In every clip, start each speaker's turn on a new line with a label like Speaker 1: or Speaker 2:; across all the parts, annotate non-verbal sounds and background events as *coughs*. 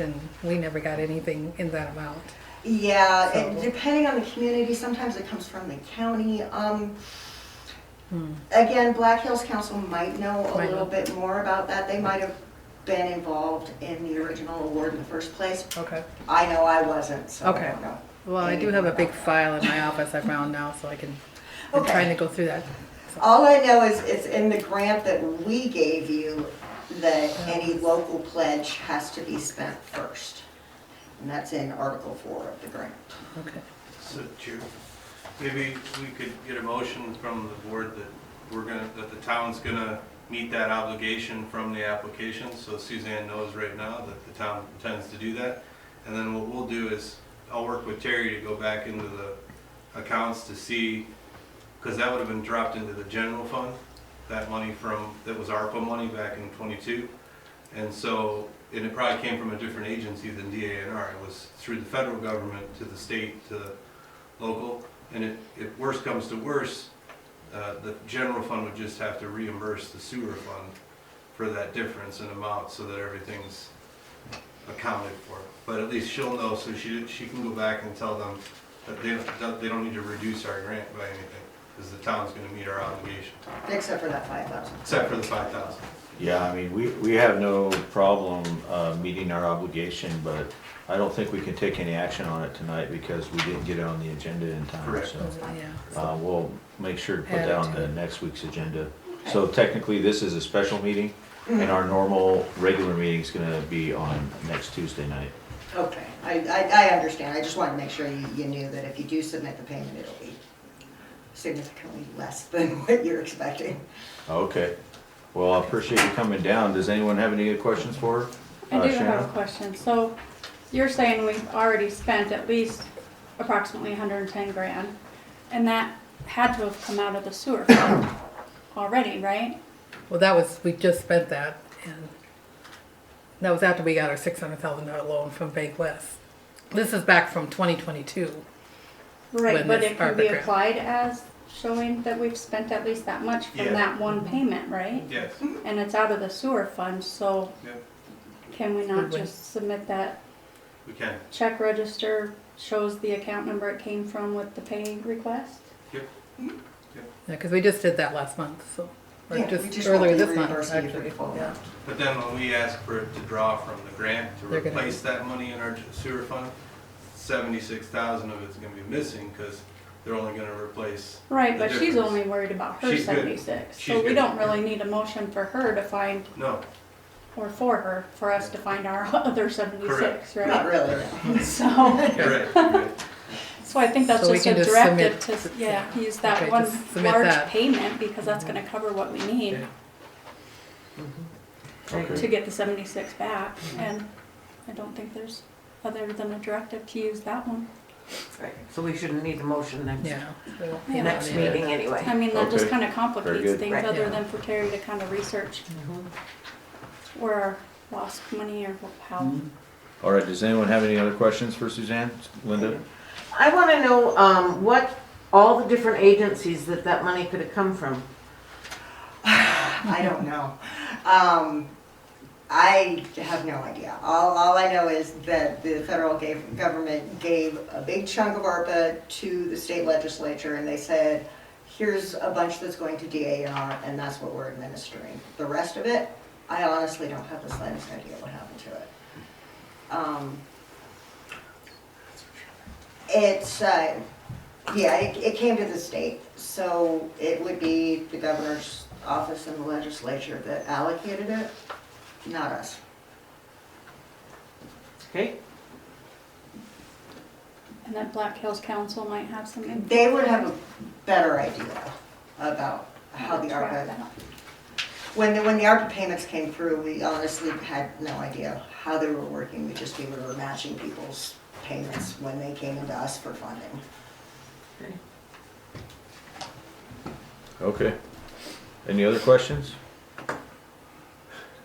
Speaker 1: And we never got anything in that amount.
Speaker 2: Yeah,
Speaker 1: So-
Speaker 2: and depending on the community, sometimes it comes from the county. Um, Again, Black Hills Council might know a
Speaker 1: Hmm. Might know.
Speaker 2: little bit more about that. They might have been involved in the original award in the first place.
Speaker 1: Okay.
Speaker 2: I know I wasn't, so I
Speaker 1: Okay.
Speaker 2: don't know.
Speaker 1: Well, I do have a big file in my office I found now, so I can, I'm
Speaker 2: Okay.
Speaker 1: trying to go through that.
Speaker 2: All I know is it's in the grant that we gave you that any local pledge has to be spent first. And that's in Article 4 of the grant.
Speaker 1: Okay.
Speaker 3: So, Chair, maybe we could get a motion from the board that we're gonna, that the town's gonna meet that obligation from the application, so Suzanne knows right now that the town intends to do that. And then what we'll do is, I'll work with Terry to go back into the accounts to see, because that would have been dropped into the general fund, that money from, that was ARPA money back in twenty-two. And so, and it probably came from a different agency than DANR, it was through the federal government to the state, to the local, and if, if worse comes to worse, uh, the general fund would just have to reimburse the sewer fund for that difference in amount, so that everything's accounted for. But at least she'll know, so she, she can go back and tell them that they, that they don't need to reduce our grant by anything, because the town's gonna meet our obligation,
Speaker 2: Except for that 5,000.
Speaker 3: except for the five thousand.
Speaker 4: Yeah, I mean, we, we have no problem uh, meeting our obligation, but I don't think we can take any action on it tonight because we didn't get it on the agenda in time,
Speaker 3: Correct.
Speaker 4: so.
Speaker 1: Yeah.
Speaker 4: uh, We'll make sure to put
Speaker 1: Add it
Speaker 4: that on
Speaker 1: to
Speaker 4: the next week's agenda. So technically, this is a special meeting, and
Speaker 2: Mhm.
Speaker 4: our normal, regular meeting's gonna be on next Tuesday night.
Speaker 2: Okay, I, I, I understand, I just wanted to make sure you, you knew that if you do submit the payment, it'll be significantly less than *laughs* what you're expecting.
Speaker 4: Okay, well, I appreciate you coming down. Does anyone have any questions for her?
Speaker 5: I
Speaker 4: Uh,
Speaker 5: do have a
Speaker 4: Shannon?
Speaker 5: question. So you're saying we've already spent at least approximately hundred and ten grand, and that had to have come out of the sewer fund *coughs* already, right?
Speaker 1: Well, that was, we just spent that and that was after we got our six hundred thousand dollar loan from Bank West. This is back from twenty twenty-two. When
Speaker 5: Right, but
Speaker 1: this
Speaker 5: it
Speaker 1: part of
Speaker 5: can
Speaker 1: the
Speaker 5: be
Speaker 1: grant.
Speaker 5: applied as showing that we've spent at least that much
Speaker 3: Yeah.
Speaker 5: from that one payment, right?
Speaker 3: Yes,
Speaker 5: And it's out of the sewer fund, so
Speaker 3: yeah,
Speaker 5: can we
Speaker 1: Would
Speaker 5: not
Speaker 1: we-
Speaker 5: just submit that
Speaker 3: we can,
Speaker 5: check register shows the account number it came from with the pay request?
Speaker 1: Yeah, because we just did that last month, so, or
Speaker 2: Yeah, we
Speaker 1: just
Speaker 2: won't
Speaker 1: earlier
Speaker 2: be
Speaker 1: this month,
Speaker 2: reimbursing you for
Speaker 1: actually.
Speaker 2: the full
Speaker 1: Yeah.
Speaker 2: amount.
Speaker 3: but then when we ask for it to draw from the grant to
Speaker 1: They're gonna-
Speaker 3: replace that money in our sewer fund, seventy-six thousand of it's gonna be missing, because they're only gonna replace
Speaker 5: Right,
Speaker 3: the
Speaker 5: but she's
Speaker 3: difference.
Speaker 5: only worried about her
Speaker 3: She's good.
Speaker 5: seventy-six,
Speaker 3: She's
Speaker 5: so we
Speaker 3: good.
Speaker 5: don't really need a motion for her to find,
Speaker 3: No,
Speaker 5: or for her, for us to find our *laughs* other seventy-six,
Speaker 2: Not
Speaker 5: right?
Speaker 2: really,
Speaker 5: *laughs* So,
Speaker 3: you're right, you're right.
Speaker 5: so I think that's
Speaker 1: So we
Speaker 5: just
Speaker 1: can
Speaker 5: a
Speaker 1: just
Speaker 5: directive
Speaker 1: submit-
Speaker 5: to, yeah, use
Speaker 1: Okay,
Speaker 5: that one
Speaker 1: just submit
Speaker 5: large
Speaker 1: that. Mm-hmm.
Speaker 5: payment, because that's gonna cover what we need
Speaker 1: Okay.
Speaker 3: Mm-hmm.
Speaker 5: to get the seventy-six back,
Speaker 1: Mm-hmm.
Speaker 5: and I don't think there's other than a directive to use that one.
Speaker 6: Right, so we shouldn't need a motion next,
Speaker 1: Yeah. we won't-
Speaker 5: Yeah.
Speaker 6: next meeting anyway.
Speaker 5: I mean, that just
Speaker 4: Okay.
Speaker 5: kinda complicates
Speaker 4: good.
Speaker 5: things,
Speaker 6: Right,
Speaker 5: other
Speaker 1: yeah.
Speaker 5: than for Terry to kinda research where our lost money or how
Speaker 4: All right, does anyone have any other questions for Suzanne, Linda?
Speaker 6: I want to know um, what, all the different agencies that that money could have come from.
Speaker 2: *sighs* I don't know. Um, I have no idea. All, all I know is that the federal gave, government gave a big chunk of ARPA to the state legislature, and they said, here's a bunch that's going to DANR, and that's what we're administering. The rest of it, I honestly don't have the slightest idea what happened to it. Um, It's, uh, yeah, it, it came to the state, so it would be the governor's office and the legislature that allocated it, not us.
Speaker 6: Okay,
Speaker 5: And that Black Hills Council might have some. info
Speaker 2: They would have a better idea about how the
Speaker 5: to track
Speaker 2: ARPA,
Speaker 5: that.
Speaker 2: when, the- when the ARPA payments came through, we honestly had no idea how they were working, we just, we were matching people's payments when they came into us for funding.
Speaker 4: Okay. Any other questions?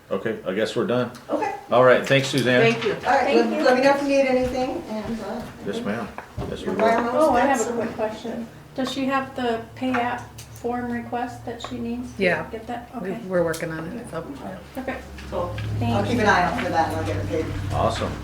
Speaker 4: Okay, I guess we're done.
Speaker 2: Okay,
Speaker 4: All right, thanks Suzanne.
Speaker 6: thank you.
Speaker 2: all right, let
Speaker 5: Thank you.
Speaker 2: let me know if you need anything, and, uh.
Speaker 4: Yes, ma'am. Yes, we will.
Speaker 2: environmental
Speaker 5: Oh, I have a
Speaker 2: steps.
Speaker 5: quick question. Does she have the pay app form request that she needs? to
Speaker 1: Yeah.
Speaker 5: Get that,
Speaker 1: We-
Speaker 5: okay,
Speaker 1: We're working on it, so. yeah.
Speaker 5: perfect,
Speaker 2: Cool.
Speaker 5: thank you.
Speaker 2: I'll keep an eye out for that and I'll get it paid.
Speaker 4: Awesome.